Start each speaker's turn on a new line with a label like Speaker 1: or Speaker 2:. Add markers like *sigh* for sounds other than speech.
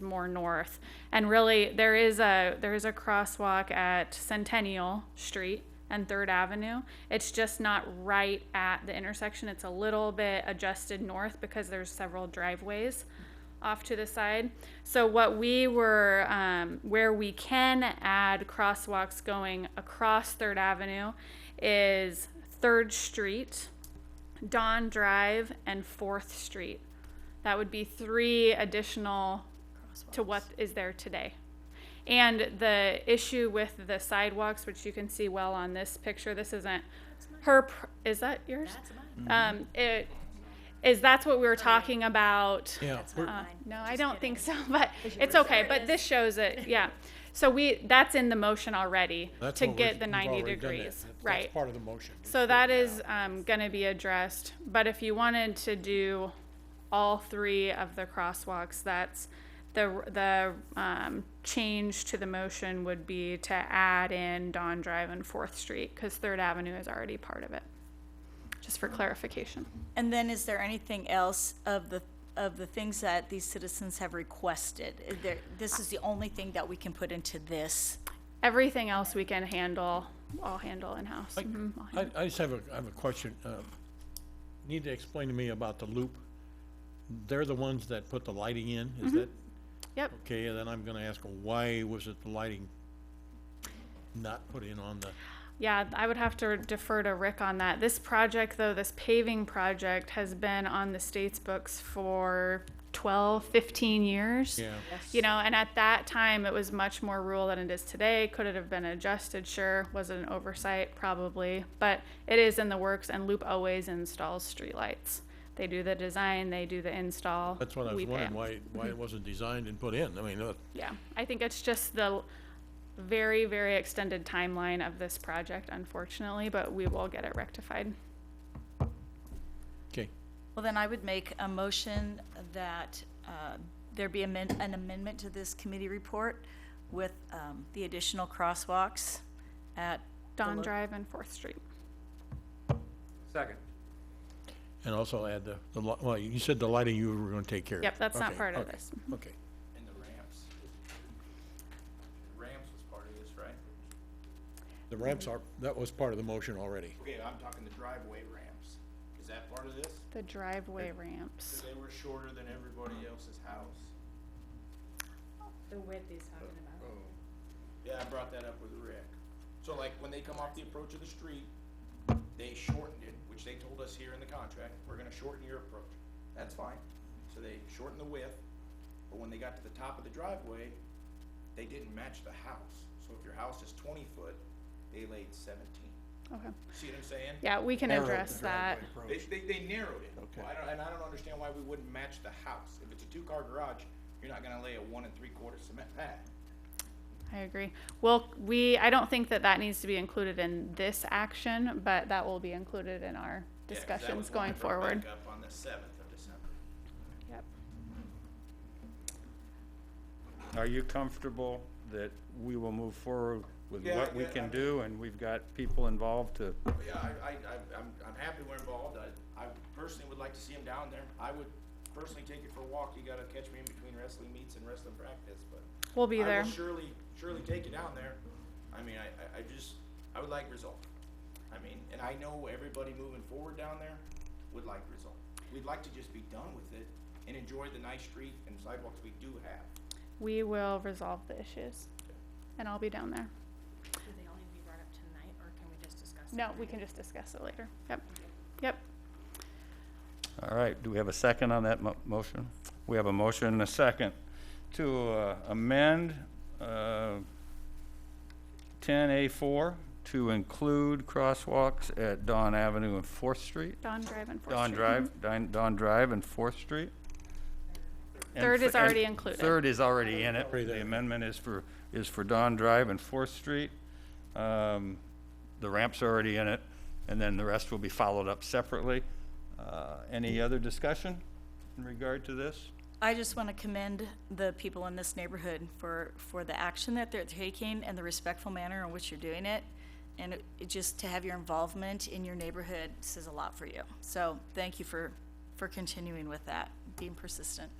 Speaker 1: more north. And really, there is a there is a crosswalk at Centennial Street and Third Avenue. It's just not right at the intersection. It's a little bit adjusted north because there's several driveways off to the side. So what we were, um, where we can add crosswalks going across Third Avenue is Third Street, Dawn Drive, and Fourth Street. That would be three additional to what is there today. And the issue with the sidewalks, which you can see well on this picture, this isn't her, pr- is that yours?
Speaker 2: That's mine.
Speaker 3: Mm-hmm.
Speaker 1: Um, it, is that's what we were talking about.
Speaker 3: Yeah,
Speaker 2: That's
Speaker 3: we're-
Speaker 2: not mine.
Speaker 1: No,
Speaker 2: Just
Speaker 1: I don't
Speaker 2: kidding.
Speaker 1: think so, *laughs* but it's
Speaker 2: were
Speaker 1: okay,
Speaker 2: saying.
Speaker 1: but this shows
Speaker 2: *laughs*
Speaker 1: it, yeah. So we, that's in the motion already,
Speaker 3: that's
Speaker 1: to
Speaker 3: what we're-
Speaker 1: get the
Speaker 3: we've
Speaker 1: ninety
Speaker 3: already done that.
Speaker 1: degrees,
Speaker 3: That's-
Speaker 1: right?
Speaker 3: That's part of the motion.
Speaker 1: So that is, um, gonna be addressed, but if you wanted to do all three of the crosswalks, that's the, the, um, change to the motion would be to add in Dawn Drive and Fourth Street, cause Third Avenue is already part of it. Just for clarification.
Speaker 4: And then is there anything else of the, of the things that these citizens have requested? Is there, this is the only thing that we can put into this?
Speaker 1: Everything else we can handle, I'll handle in-house. Mhm, I'll
Speaker 3: I, I just have a, I have a question. um, Need to explain to me about the loop. They're the ones that put the lighting in, is that?
Speaker 1: Mm-hmm. Yep.
Speaker 3: Okay, and then I'm gonna ask, well, why was it the lighting not put in on the,
Speaker 1: Yeah, I would have to defer to Rick on that. This project, though, this paving project has been on the state's books for 12, 15 years.
Speaker 3: yeah,
Speaker 1: You know, and at that time, it was much more rural than it is today. Could it have been adjusted? Sure. Was it an oversight? Probably. But it is in the works, and Loop always installs streetlights. They do the design, they do the install.
Speaker 3: that's what I was
Speaker 1: we pay 'em.
Speaker 3: wondering, why,
Speaker 1: *laughs*
Speaker 3: why it wasn't designed and put in, I mean, uh,
Speaker 1: Yeah, I think it's just the very, very extended timeline of this project, unfortunately, but we will get it rectified.
Speaker 3: okay.
Speaker 4: Well, then I would make a motion that uh, there be amen- an amendment to this committee report with um, the additional crosswalks at,
Speaker 1: Dawn
Speaker 4: Hello.
Speaker 1: Drive and Fourth Street.
Speaker 5: Second.
Speaker 3: And also add the, the, li- well, you said the lighting you were gonna take care of.
Speaker 1: Yep, that's not
Speaker 3: Okay,
Speaker 1: part of
Speaker 3: okay,
Speaker 1: this.
Speaker 3: Okay,
Speaker 5: And the ramps. The Ramps was part of this, right?
Speaker 3: the ramps are, that was part of the motion already.
Speaker 5: Okay, I'm talking the driveway ramps. Is that part of this?
Speaker 1: The driveway ramps.
Speaker 5: They were shorter than everybody else's house.
Speaker 6: The width he's talking about.
Speaker 5: Yeah, I brought that up with Rick. So like, when they come off the approach of the street, they shortened it, which they told us here in the contract, we're gonna shorten your approach. That's fine. So they shortened the width, but when they got to the top of the driveway, they didn't match the house. So if your house is twenty foot, they laid seventeen.
Speaker 1: Okay.
Speaker 5: See what I'm saying?
Speaker 1: Yeah, we can address that.
Speaker 5: They, they, they narrowed it. Well, I don't, and I don't understand why we wouldn't match the house. If it's a two-car garage, you're not gonna lay a one and three-quarter cement pad.
Speaker 1: I agree. Well, we, I don't think that that needs to be included in this action, but that will be included in our
Speaker 5: Yeah, 'cause that
Speaker 1: discussions
Speaker 5: was one I
Speaker 1: going
Speaker 5: brought
Speaker 1: forward.
Speaker 5: back up on the seventh of December.
Speaker 1: Yep.
Speaker 7: Are you comfortable that we will move forward with
Speaker 5: Yeah,
Speaker 7: what we
Speaker 5: yeah,
Speaker 7: can
Speaker 5: I'm-
Speaker 7: do, and we've got people involved to,
Speaker 5: Yeah, I, I, I- I'm, I'm happy we're involved. I, I personally would like to see him down there. I would personally take it for a walk. You gotta catch me in between wrestling meets and wrestling practice, but.
Speaker 1: We'll be
Speaker 5: I
Speaker 1: there.
Speaker 5: will surely, surely take you down there. I mean, I, I, I just, I would like result. I mean, and I know everybody moving forward down there would like result. We'd like to just be done with it and enjoy the nice street and sidewalks we do have.
Speaker 1: We will resolve the issues, and I'll be down there.
Speaker 6: Do they all need to be brought up tonight, or can we just discuss? it
Speaker 1: No,
Speaker 6: tonight?
Speaker 1: we can just discuss it later. Yep. Yep.
Speaker 7: all right, do we have a second on that mo- motion? We have a motion and a second to uh, amend ten A four to include crosswalks at Dawn Avenue and Fourth Street,
Speaker 1: Dawn Drive and Fourth Street.
Speaker 7: Dawn Drive, Dawn Dawn Drive and Fourth Street. And
Speaker 1: Third
Speaker 7: f-
Speaker 1: is
Speaker 7: and
Speaker 1: already included.
Speaker 7: Third is already in it.
Speaker 3: Already there.
Speaker 7: The amendment is for, is for Don Drive and Fourth Street. Um, The ramp's already in it, and then the rest will be followed up separately. Uh, Any other discussion in regard to this?
Speaker 4: I just want to commend the people in this neighborhood for, for the action that they're taking and the respectful manner in which you're doing it. And it- it just to have your involvement in your neighborhood says a lot for you. So thank you for, for continuing with that, being persistent.